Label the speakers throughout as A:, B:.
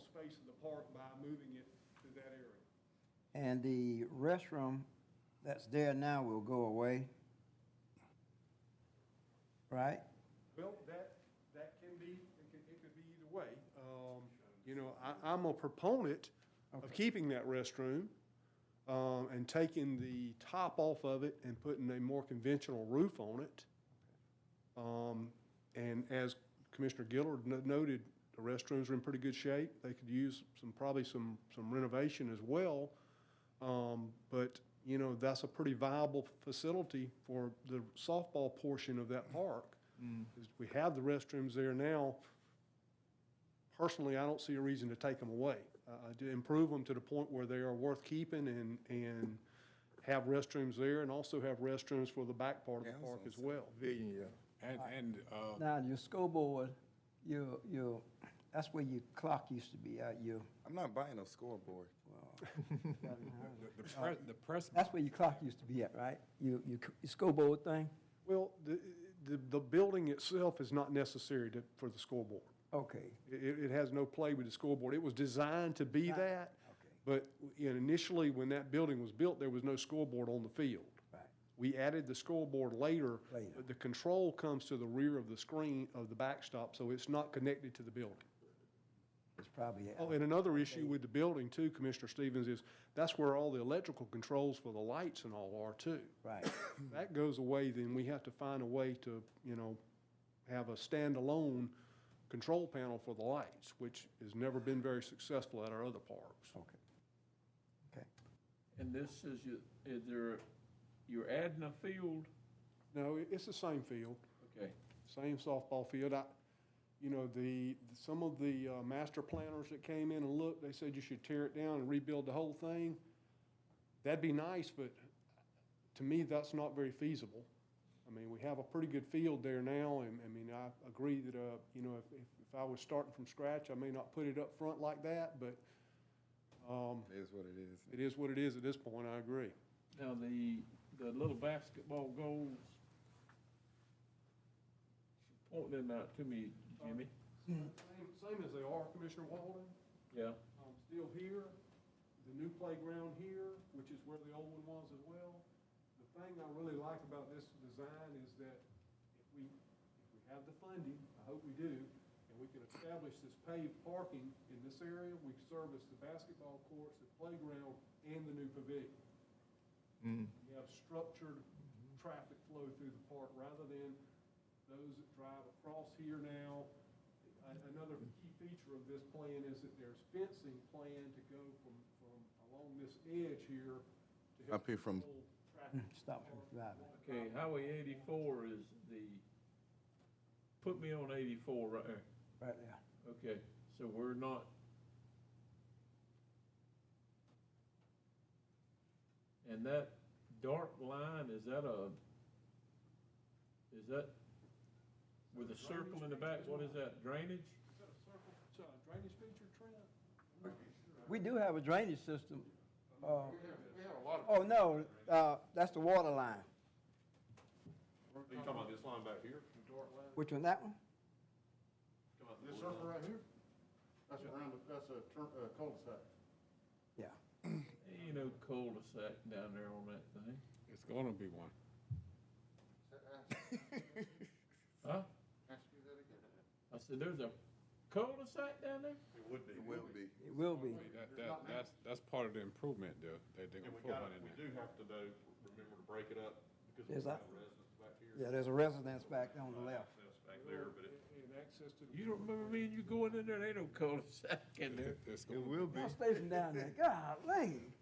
A: space in the park by moving it to that area.
B: And the restroom that's there now will go away? Right?
A: Well, that, that can be, it could, it could be either way. Um, you know, I, I'm a proponent of keeping that restroom, um, and taking the top off of it and putting a more conventional roof on it. Um, and as Commissioner Gillard no- noted, the restrooms are in pretty good shape. They could use some, probably some, some renovation as well. Um, but, you know, that's a pretty viable facility for the softball portion of that park. Is We have the restrooms there now. Personally, I don't see a reason to take them away. Uh, to improve them to the point where they are worth keeping and, and have restrooms there and also have restrooms for the back part of the park as well.
C: Pavilion,
D: And, and, uh,
B: Now, your scoreboard, your, your, that's where your clock used to be at, your,
C: I'm not buying a scoreboard.
D: the, the press, the press,
B: that's where your clock used to be at, right? Your, your c- your scoreboard thing?
A: Well, the, the, the building itself is not necessary to, for the scoreboard.
B: Okay,
A: It, it it has no play with the scoreboard. It was designed to be
B: Right.
A: that.
B: Okay.
A: But initially, when that building was built, there was no scoreboard on the field.
B: right.
A: We added the scoreboard later.
B: Later.
A: but The control comes to the rear of the screen of the backstop, so it's not connected to the building.
B: It's probably,
A: Oh, and another issue with the building too, Commissioner Stevens, is that's where all the electrical controls for the lights and all are too.
B: right.
A: That goes away, then we have to find a way to, you know, have a standalone control panel for the lights, which has never been very successful at our other parks.
B: Okay. Okay.
E: And this is, your- is there, you're adding a field?
A: No, it- it's the same field.
E: Okay,
A: same softball field. I, you know, the, some of the uh, master planners that came in and looked, they said you should tear it down and rebuild the whole thing. That'd be nice, but to me, that's not very feasible. I mean, we have a pretty good field there now, and, I mean, I agree that, uh, you know, if, if- if I was starting from scratch, I may not put it up front like that, but um,
C: It is what it is.
A: it is what it is at this point, I agree.
E: now the, the little basketball goals, point them out to me, Jimmy.
A: Same as they are, Commissioner Walden.
E: Yeah,
A: um, still here, the new playground here, which is where the old one was as well. The thing I really like about this design is that if we, if we have the funding, I hope we do, and we can establish this paved parking in this area, we service the basketball courts, the playground, and the new pavilion. We have structured traffic flow through the park rather than those that drive across here now. A- Another key feature of this plan is that there's fencing planned to go from, from along this edge here to help.
C: Up here from-
A: control traffic.
B: Stop from driving.
E: okay, Highway eighty-four is the, put me on eighty-four right there.
B: Right there.
E: Okay, so we're not. And that dark line, is that a, is that with a circle in the back, what is that, drainage?
A: Is that a circle, it's a drainage feature, Trent? I'm not sure.
B: We do have a drainage system. Uh,
F: We have a lot of.
B: oh, no, uh, that's the water line.
F: Are you talking about this line back here?
B: Which one, that one?
F: Talking about
G: This
F: this
G: circle
F: line?
G: right here, that's around, that's a tur- uh, cul-de-sac.
B: Yeah.
E: Ain't no cul-de-sac down there on that thing,
D: it's gonna be one.
E: huh?
G: Ask you that again.
E: I said, there's a cul-de-sac down there?
F: It would be.
C: It will be.
B: It will be.
D: That, that, that's, that's part of the improvement, though, that they're
F: And
D: gonna
F: we
D: put one
F: gotta,
D: in
F: we
D: there.
F: do have to though, remember to break it up because
B: There's
F: there's
B: a-
F: no residents back here.
B: Yeah, there's a residence back on the left.
F: Access Back there, but it,
A: And access to. the-
E: You don't remember me and you going in there, there ain't no cul-de-sac in there.
D: It- it's
C: It
D: gonna-
C: will be.
B: Y'all stay from down there. Golly.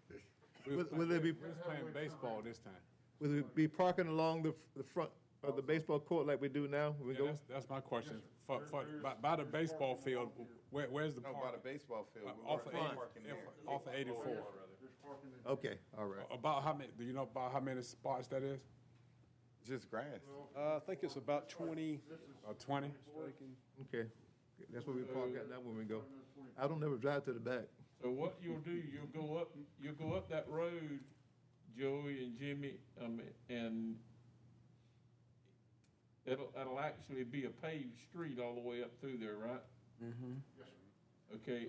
D: we was
H: Will- will there be-
D: playing- We was playing baseball this time.
H: Will it be parking along the, the front of the baseball court like we do now? when We
D: Yeah,
H: go,
D: that's, that's my question. For,
F: There-
D: for,
F: there's-
D: by, by the
F: there's
D: baseball
F: parking
D: field,
F: along here.
D: where, where's the
C: No, by the
D: park?
C: baseball field.
D: Uh,
C: We're
D: Off of
C: already
D: eighty-
C: parking there.
D: yeah, off of eighty-four.
F: rather.
G: There's parking in.
H: okay, all right.
D: About how many, do you know about how many spots that is?
C: Just grass.
A: Uh, I think it's about twenty.
D: About Uh, twenty?
H: Okay, that's where we park at now when we go. I don't ever drive to the back.
E: So what you'll do, you'll go up, you'll go up that road, Joey and Jimmy, um, and it'll, it'll actually be a paved street all the way up through there, right?
G: Yes, sir.
E: Okay,